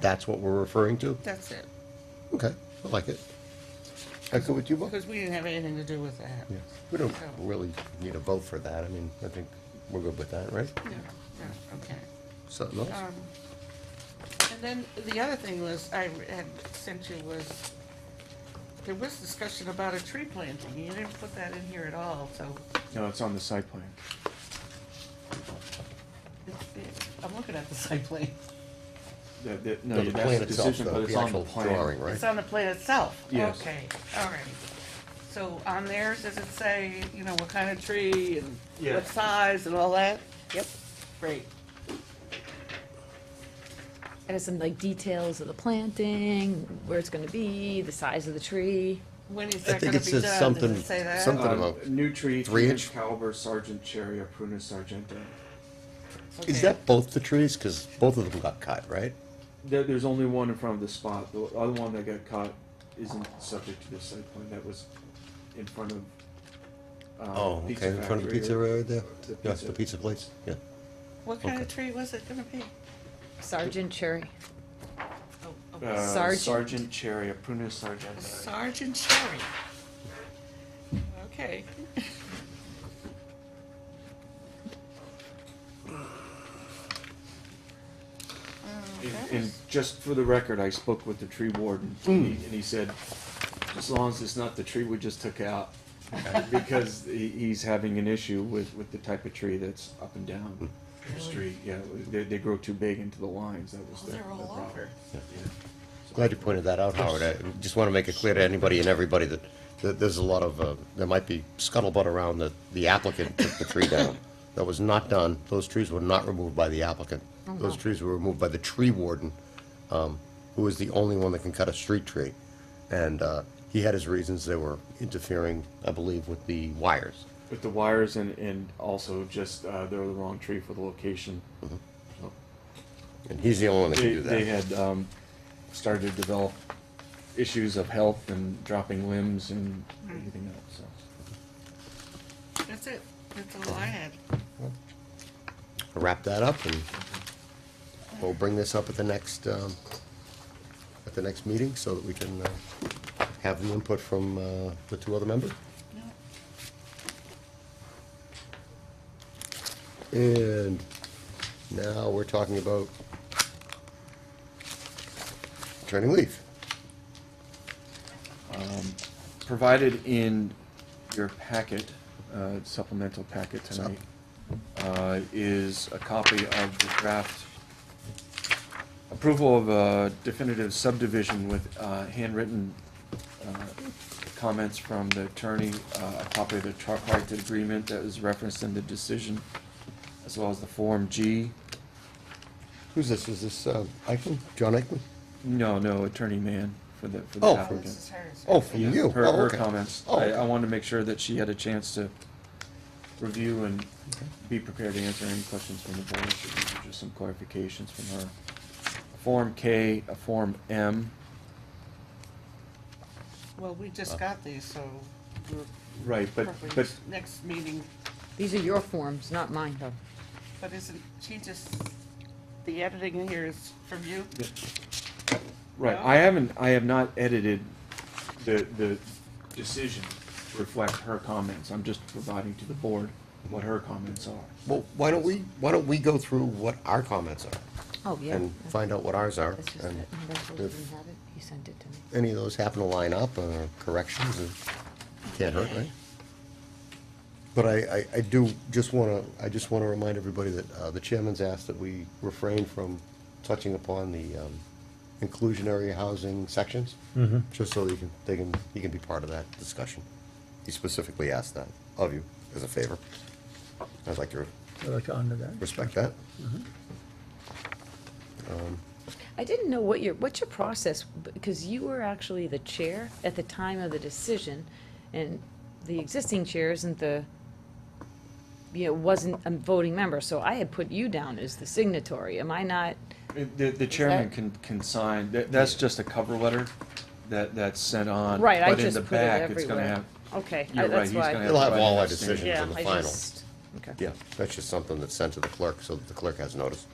that's what we're referring to? That's it, Okay, I like it. Echo with you, Bob? because we didn't have anything to do with that. Yeah, we don't really need a vote for that, I mean, I think we're good with that, right? Yeah, yeah, okay. Something else? Um, And then the other thing was, I had sent you was, there was discussion about a tree planting, you didn't put that in here at all, so No, it's on the site plan. it's, it- I'm looking at the site plan. The, the, No, no, the that's plan the itself, decision, though, but it's the on the actual plan. drawing, right? It's on the plan itself? Yes. Okay, all right. So on theirs, does it say, you know, what kind of tree and Yeah. what size and all that? Yep. Great. And it's some like details of the planting, where it's gonna be, the size of the tree. When is I that think gonna it be says done? Does something- it say that? something- Um, about New tree, three three inch? inch caliber, Sergeant Cherry, Prunus Sargento. Okay. Is that both the trees? Because both of them got cut, right? There, there's only one in front of the spot. The other one that got caught isn't subject to the site plan. That was in front of. um, Oh, Pizza okay, in front of the Factory pizza or- right there? the Yes, pizza. the pizza place, yeah. What kind of Okay. tree was it gonna be? Sergeant Cherry. Oh, okay. Uh, Sergeant. Sergeant Cherry, Prunus Sargento. Sergeant Sherry. Okay. And- And just for the record, I spoke with the tree warden, and Mm. he- and he said, as long as it's not the tree we just took out, because he- he's having an issue with, with the type of tree that's up and down the street, yeah, they, they grow too big into the lines, that was Oh, the the they're all problem. over. Yeah. Glad you pointed that out, Howard. I just want to make it clear to anybody and everybody that, that there's a lot of, uh, there might be scuttlebutt around that the applicant took the tree down. That was not done. Those trees were not removed by the applicant. Those trees were removed by the tree warden, um, who is the only one that can cut a street tree. And, uh, he had his reasons. They were interfering, I believe, with the wires. With the wires and, and also just, uh, they're the wrong tree for the location. So, And he's the only one that can They, do that. they had, um, started to develop issues of health and dropping limbs and Hmm. everything else, so. That's it. That's all I had. wrap that up and we'll bring this up at the next, um, at the next meeting so that we can, uh, have the input from, uh, the two other members. No. oh, And now we're talking about turning leaf. provided in your packet, uh, supplemental packet tonight, uh, is a copy of the draft approval of a definitive subdivision with uh, handwritten uh, comments from the attorney, uh, a copy of the tripartite agreement that was referenced in the decision, as well as the Form G. Who's this? Is this, uh, Eichmann? John Eichmann? No, no, Attorney Mann for the for the Oh, Oh, applicant. this is hers. Oh, from Yeah, you? Her, Oh, her okay. comments. Oh, I, okay. I wanted to make sure that she had a chance to review and be prepared to answer any questions from the board. So these are Just some clarifications from her. Form K, a Form M. Well, we just got these, so we're Right, but, probably but, next meeting, These are your forms, not mine, though. but isn't, she just, the editing in here is from you? right, I haven't, I have not edited the, the decision to reflect her comments. I'm just providing to the board what her comments are. Well, why don't we, why don't we go through what our comments are Oh, yeah. and find out what ours are? That's just and it. My husband if- didn't have it. He sent it to me. any of those happen to line up or corrections, it can't hurt, right? But I, I, I do just wanna, I just wanna remind everybody that, uh, the chairman's asked that we refrain from touching upon the, um, inclusionary housing sections. Mm-hmm. Just so you can, they can, he can be part of that discussion. He specifically asked that of you as a favor. I'd like to I'd like to honor that. respect that. I didn't know what your, what's your process, because you were actually the chair at the time of the decision, and the existing chair isn't the, you know, wasn't a voting member, so I had put you down as the signatory. Am I not? Uh, The, the chairman can, can sign, that, that's just a cover letter that, that's sent on. Right, I but in just the put it back, it's gonna everywhere. have- Okay, I- You're right, that's he's why. gonna He'll have all our Abstaining. decisions Yeah, in the I final. just, okay. Yeah, that's just something that's sent to the clerk so that the clerk has notice.